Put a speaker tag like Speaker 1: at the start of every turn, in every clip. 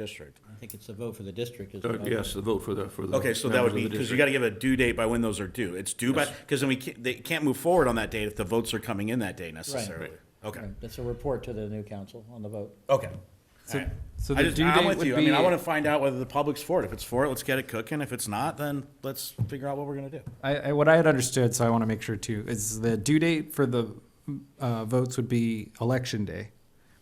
Speaker 1: district.
Speaker 2: I think it's a vote for the district as
Speaker 3: Uh,
Speaker 2: well.
Speaker 3: Yes, the vote for the, for the.
Speaker 1: Okay, so that would
Speaker 3: members
Speaker 1: be,
Speaker 3: of the
Speaker 1: because you
Speaker 3: district.
Speaker 1: gotta give a due date by when those are due. It's due by, because then we can't, they can't move forward on that date if the votes are coming in that day necessarily. Okay,
Speaker 2: Right, That's a report to the new council on the vote.
Speaker 1: okay.
Speaker 4: So-
Speaker 1: All right.
Speaker 4: so
Speaker 1: I
Speaker 4: the
Speaker 1: just-
Speaker 4: due
Speaker 1: I'm
Speaker 4: date
Speaker 1: with
Speaker 4: would
Speaker 1: you. I mean, I
Speaker 4: be-
Speaker 1: wanna find out whether the public's for it. If it's for it, let's get it cooking. If it's not, then let's figure out what we're gonna do.
Speaker 4: I, I, what I had understood, so I want to make sure too, is the due date for the uh, votes would be election day,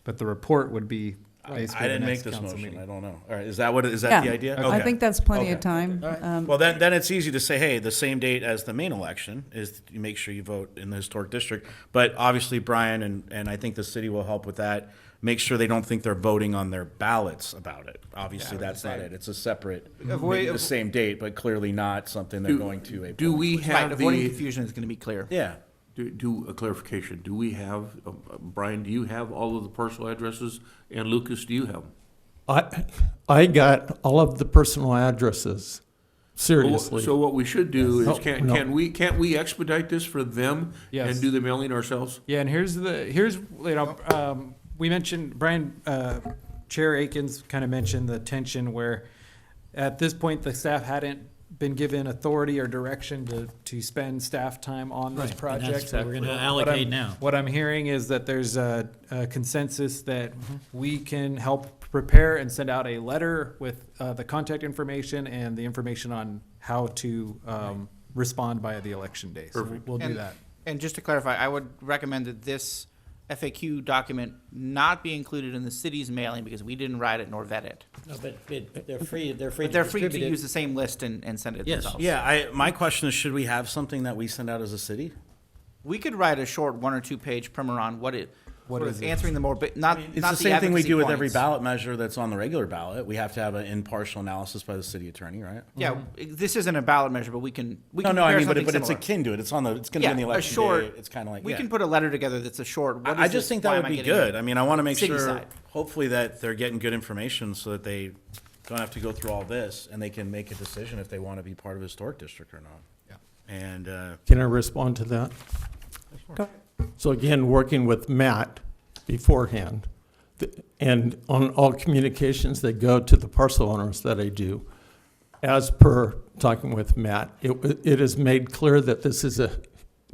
Speaker 4: but the report would be. basically
Speaker 1: I
Speaker 4: the
Speaker 1: didn't make
Speaker 4: next
Speaker 1: this
Speaker 4: council
Speaker 1: motion. I
Speaker 4: meeting.
Speaker 1: don't know. All right, is that what, is that the idea?
Speaker 5: I
Speaker 1: Okay.
Speaker 5: think that's plenty of
Speaker 1: Okay.
Speaker 5: time. Um,
Speaker 1: Well, then, then it's easy to say, hey, the same date as the main election is you make sure you vote in the historic district. But obviously, Brian and, and I think the city will help with that. Make sure they don't think they're voting on their ballots about it. Obviously, that's not it. It's a separate,
Speaker 6: Avoid-
Speaker 1: the same date, but clearly not something they're going to a.
Speaker 6: Do we
Speaker 7: Right,
Speaker 6: have
Speaker 7: avoiding
Speaker 6: the,
Speaker 7: confusion is going to be clear.
Speaker 1: Yeah.
Speaker 3: Do, do a clarification, do we have, uh, uh, Brian, do you have all of the parcel addresses? And Lucas, do you have? them?
Speaker 8: I, I got all of the personal addresses, seriously.
Speaker 3: So what we should do is,
Speaker 8: Yes.
Speaker 3: can,
Speaker 8: No.
Speaker 3: can we, can't we expedite this for them?
Speaker 4: Yes.
Speaker 3: And do the mailing ourselves?
Speaker 4: Yeah, and here's the, here's, you know, um, we mentioned, Brian, uh, Chair Akins kind of mentioned the tension where at this point, the staff hadn't been given authority or direction to, to spend staff time on this
Speaker 2: And
Speaker 4: project.
Speaker 2: that's what we're gonna
Speaker 4: What I'm-
Speaker 2: allocate now.
Speaker 4: What I'm hearing is that there's a, a consensus that
Speaker 2: Mm-hmm.
Speaker 4: we can help prepare and send out a letter with uh, the contact information and the information on how to um, respond by the election day. So we'll do
Speaker 7: And-
Speaker 4: that.
Speaker 7: And just to clarify, I would recommend that this FAQ document not be included in the city's mailing because we didn't write it nor vet it.
Speaker 2: No, but, but they're free, they're free
Speaker 7: But
Speaker 2: to
Speaker 7: they're free
Speaker 2: distribute
Speaker 7: to use
Speaker 2: it.
Speaker 7: the same list and, and send it
Speaker 2: Yes.
Speaker 7: themselves.
Speaker 1: Yeah, I, my question is, should we have something that we send out as a city?
Speaker 7: We could write a short one or two page primer on what it,
Speaker 4: What
Speaker 7: sort
Speaker 4: is
Speaker 7: of
Speaker 4: it?
Speaker 7: answering the more, but not, not
Speaker 1: It's the same thing we
Speaker 7: advocacy
Speaker 1: do with every
Speaker 7: points.
Speaker 1: ballot measure that's on the regular ballot. We have to have an impartial analysis by the city attorney, right?
Speaker 7: Yeah, this isn't a ballot measure, but we can,
Speaker 1: Mm-hmm.
Speaker 7: we
Speaker 1: No,
Speaker 7: can
Speaker 1: no, I
Speaker 7: prepare
Speaker 1: mean, but,
Speaker 7: something
Speaker 1: it- but it's
Speaker 7: similar.
Speaker 1: akin to it. It's on the, it's gonna be
Speaker 7: Yeah,
Speaker 1: on the
Speaker 7: a
Speaker 1: election
Speaker 7: short.
Speaker 1: day. It's kinda like,
Speaker 7: We
Speaker 1: yeah.
Speaker 7: can put a letter together that's a short. what
Speaker 1: I I
Speaker 7: is
Speaker 1: just
Speaker 7: this?
Speaker 1: think
Speaker 7: Why
Speaker 1: that
Speaker 7: am I
Speaker 1: would be
Speaker 7: getting it?
Speaker 1: good. I mean, I want to make
Speaker 7: City
Speaker 1: sure,
Speaker 7: side.
Speaker 1: hopefully that they're getting good information so that they don't have to go through all this and they can make a decision if they want to be part of historic district or not. Yeah. And, uh,
Speaker 8: Can I respond to that? So again, working with Matt beforehand, th- and on all communications that go to the parcel owners that I do, as per talking with Matt, it, wa- it is made clear that this is a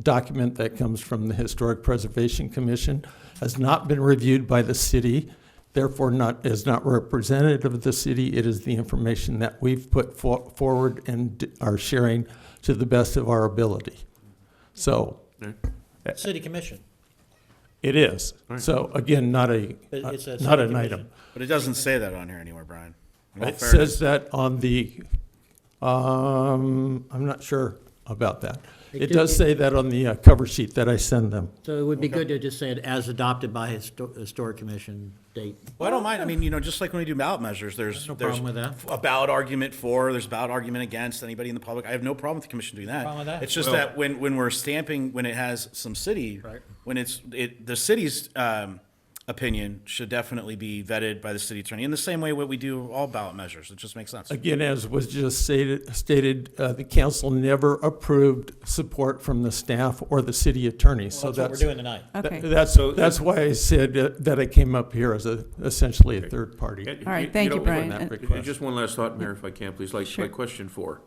Speaker 8: document that comes from the Historic Preservation Commission, has not been reviewed by the city, therefore not, is not representative of the city. It is the information that we've put for, forward and d- are sharing to the best of our ability. So
Speaker 2: City commission.
Speaker 8: it is. So again, not a, uh,
Speaker 2: It- it's a
Speaker 8: not
Speaker 2: city
Speaker 8: an
Speaker 2: commission.
Speaker 8: item.
Speaker 1: but it doesn't say that on here anywhere, Brian. In all
Speaker 8: It
Speaker 1: fairness-
Speaker 8: says that on the, um, I'm not sure about that. It
Speaker 2: do-
Speaker 8: does say that on the uh, cover sheet that I send them.
Speaker 2: So it would be good to just say it as adopted by histo- historic commission date.
Speaker 1: Well, I don't mind. I mean, you know, just like when we do ballot measures, there's,
Speaker 2: Oh, No
Speaker 1: there's
Speaker 2: problem with that.
Speaker 1: a ballot argument for, there's a ballot argument against anybody in the public. I have no problem with the commission doing that.
Speaker 2: Problem with that.
Speaker 1: It's just that when, when we're stamping, when it has some city, when it's, it, the city's, um, opinion should definitely be vetted by the city attorney in the same way what we do all ballot measures. It just makes sense.
Speaker 8: Again, as was just stated, stated, uh, the council never approved support from the staff or the city attorney, so
Speaker 2: That's what we're
Speaker 8: that's.
Speaker 2: doing tonight.
Speaker 8: tha-
Speaker 5: Uh, Okay.
Speaker 8: That's, that's why I said uh, that I came up here as a, essentially a third party.
Speaker 3: And
Speaker 5: All right,
Speaker 3: know,
Speaker 5: thank you,
Speaker 3: and-
Speaker 5: Brian.
Speaker 3: and-
Speaker 8: And-
Speaker 3: and Just one last thought, Mayor, if I can, please, like, like question four.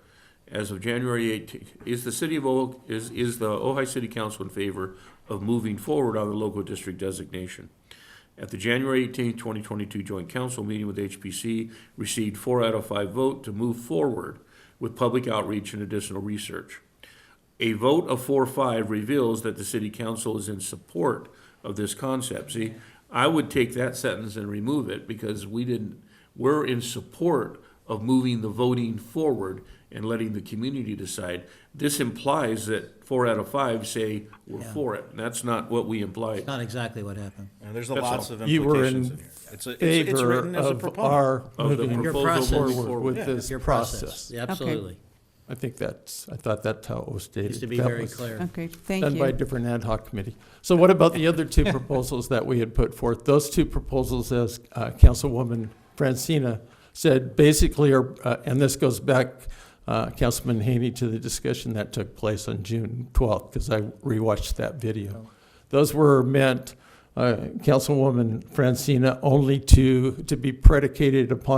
Speaker 3: As of January eighteenth, is the city of O, is, is the Ojai City Council in favor of moving forward on the local district designation? At the January eighteenth, twenty twenty-two joint council meeting with HPC, received four out of five vote to move forward with public outreach and additional research. A vote of four five reveals that the city council is in support of this concept. See, I would take that sentence and remove it because we didn't, we're in support of moving the voting forward and letting the community decide. This implies that four out of five say we're for it, and that's not what we implied.
Speaker 2: Not exactly what happened.
Speaker 1: And there's a
Speaker 3: That's
Speaker 1: lots
Speaker 3: all.
Speaker 1: of
Speaker 8: You were
Speaker 1: implications in
Speaker 8: in
Speaker 1: here. It's a- it's- it's
Speaker 8: favor
Speaker 1: written as a
Speaker 8: of
Speaker 1: proponent.
Speaker 8: our
Speaker 3: Of the
Speaker 8: moving
Speaker 3: Your
Speaker 2: process.
Speaker 8: forward with
Speaker 3: Yeah.
Speaker 8: this
Speaker 2: Your
Speaker 8: process.
Speaker 2: process, Yeah, absolutely.
Speaker 8: I think that's, I thought that's how it was stated.
Speaker 2: Needs to be
Speaker 8: That
Speaker 2: very
Speaker 8: was
Speaker 2: clear.
Speaker 5: Okay, thank
Speaker 8: Done by a
Speaker 5: you.
Speaker 8: different ad hoc committee. So what about the other two proposals that we had put forth? Those two proposals, as uh, Councilwoman Francina said, basically are, uh, and this goes back, uh, Councilman Haney, to the discussion that took place on June 12th, because I rewatched that video. Those were meant, uh, Councilwoman Francina, only to, to be predicated upon